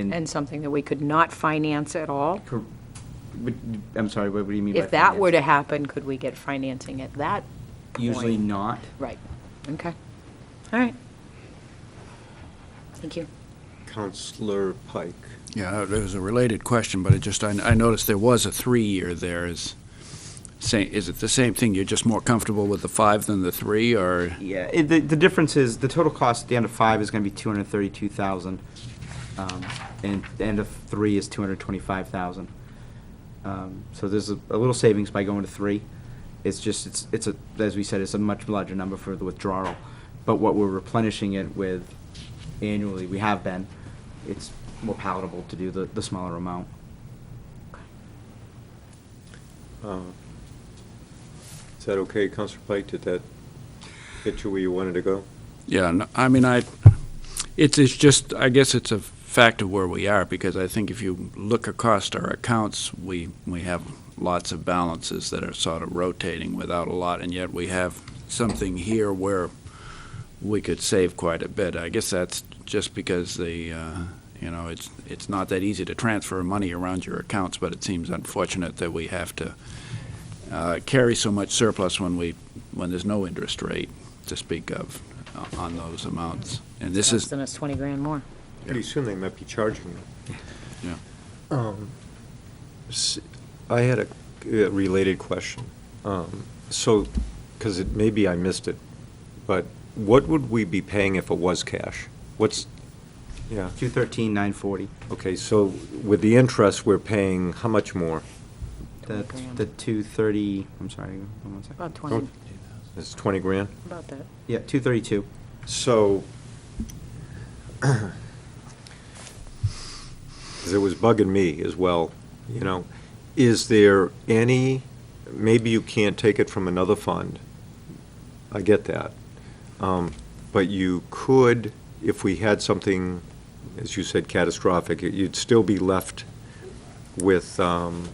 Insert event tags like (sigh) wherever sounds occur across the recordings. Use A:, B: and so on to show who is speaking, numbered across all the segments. A: and something that we could not finance at all?
B: Cor- what- I'm sorry, what what do you mean by?
A: If that were to
B: finance?
A: happen, could we get financing at that point?
B: Usually not.
A: Right, okay. All right. Thank you.
C: Counselor Pike.
D: Yeah, it was a related question, but it just, I I noticed there was a three-year there. Is, say- is it the same thing? You're just more comfortable with the five than the three, or?
B: Yeah, it- the, the difference is, the total cost at the end of five is gonna be two hundred and thirty-two thousand, um, and the end of three is two hundred and twenty-five thousand. Um, so there's a, a little savings by going to three. It's just, it's, it's a, as we said, it's a much larger number for the withdrawal. But what we're replenishing it with annually, we have been, it's more palatable to do the, the smaller amount.
C: Uh, Is that okay, Counselor Pike? Did that get you where you wanted to go?
D: Yeah, no, I mean, I, it's, it's just, I guess it's a fact of where we are, because I think if you look across our accounts, we, we have lots of balances that are sort of rotating without a lot, and yet we have something here where we could save quite a bit. I guess that's just because the, uh, you know, it's, it's not that easy to transfer money around your accounts, but it seems unfortunate that we have to uh, carry so much surplus when we, when there's no interest rate to speak of uh, on those amounts. And this is,
A: Costing us 20 grand more.
C: Pretty soon they might be charging you.
D: yeah.
C: Um, s- I had a uh, related question. Um, So, because it, maybe I missed it, but what would we be paying if it was cash? What's, yeah,
B: Two thirteen, nine forty.
C: okay, so with the interest, we're paying how much more?
B: The,
A: Grand.
B: the two thirty, I'm sorry, hold on one second.
A: About 20,
C: It's 20 grand?
A: about that.
B: Yeah, two thirty-two.
C: So, because it was bugging me as well, you know, is there any, maybe you can't take it from another fund. I get that. Um, But you could, if we had something, as you said, catastrophic, you'd still be left with um,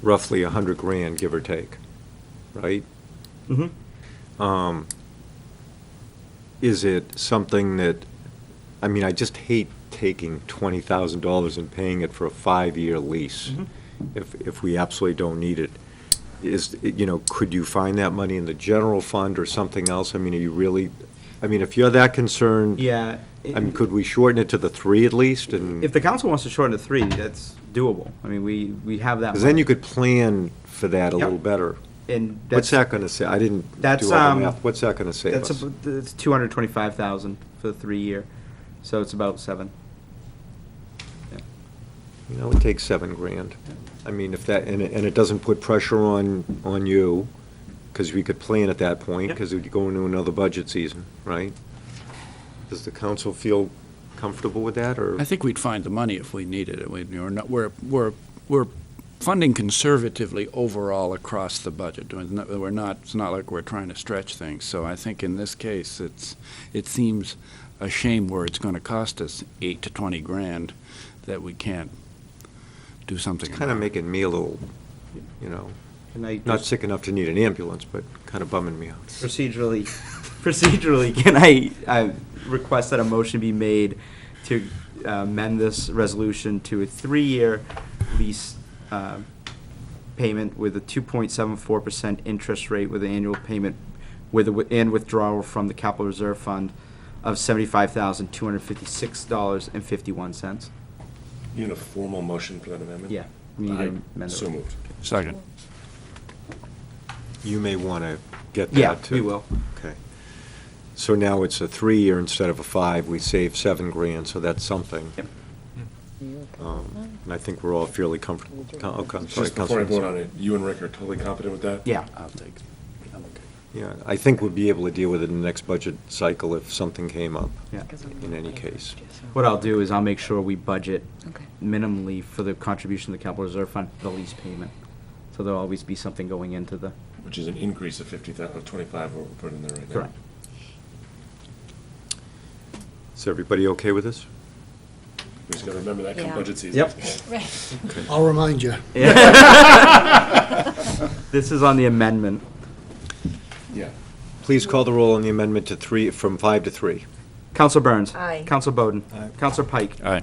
C: roughly 100 grand, give or take, right?
B: Mm-hmm.
C: is it something that, I mean, I just hate taking twenty thousand dollars and paying it for a five-year lease
B: Mhm.
C: if, if we absolutely don't need it. Is, you know, could you find that money in the general fund or something else? I mean, are you really, I mean, if you're that concerned,
B: Yeah.
C: I mean, could we shorten it to the three at least and?
B: If the council wants to shorten to three, that's doable. I mean, we, we have that.
C: Because then
B: money.
C: you could plan for that a
B: Yep.
C: little better.
B: And that's,
C: What's that gonna say? I didn't
B: That's,
C: do all
B: um,
C: the math. What's that gonna save
B: that's,
C: us?
B: ab- that's two hundred twenty-five thousand for the three year, so it's about seven. Yeah.
C: You know, it takes seven grand. I mean, if that, and it, and it doesn't put pressure on, on you, because we could plan at that point,
B: Yep.
C: because we'd go into another budget season, right? Does the council feel comfortable with that, or?
D: I think we'd find the money if we needed it. We, we're, not, we're, we're, we're funding conservatively overall across the budget. We're not- We're not, it's not like we're trying to stretch things. So I think in this case, it's, it seems a shame where it's going to cost us eight to 20 grand that we can't do something
C: It's kind of
D: about it.
C: making me a little, you know,
B: Can I
C: not
B: just
C: sick enough to need an ambulance, but kind of bumming me out.
B: procedurally, procedurally, can I, I request that a motion be made to uh, amend this resolution to a three-year lease, uh, payment with a two point seven four percent interest rate with an annual payment with, a wi- and withdrawal from the capital reserve fund of seventy-five thousand, two hundred fifty-six dollars and fifty-one cents.
E: You need a formal motion for that amendment?
B: Yeah, we need to
E: I-
B: amend it.
E: So moved.
D: Second.
C: You may want to get
B: Yeah,
C: that, too.
B: we will.
C: Okay. So now it's a three-year instead of a five, we save seven grand, so that's something.
B: Yep.
C: Um, And I think we're all fairly comfortable. Okay, I'm sorry,
E: Just before I
C: Councilman.
E: vote on it, you and Rick are totally confident with that?
B: Yeah.
D: I'll take it.
E: I'm okay.
C: Yeah, I think we'll be able to deal with it in the next budget cycle if something came up.
B: Yeah.
C: In any case.
B: What I'll do is I'll make sure we budget
A: Okay.
B: minimally for the contribution to the capital reserve fund, the lease payment. So there'll always be something going into the,
E: Which is an increase of 50,000, or 25, what we're putting in there right now.
B: Correct.
C: Is everybody okay with this?
E: We just got to remember that come
A: Yeah.
E: budget season.
B: Yep.
F: I'll remind
C: (laughs)
F: you.
B: this is on the amendment.
E: Yeah.
C: Please call the roll on the amendment to three, from five to three.
B: Counselor Burns.
G: Aye.
B: Counselor Bowden.
C: Aye.
B: Counselor Pike.
D: Aye.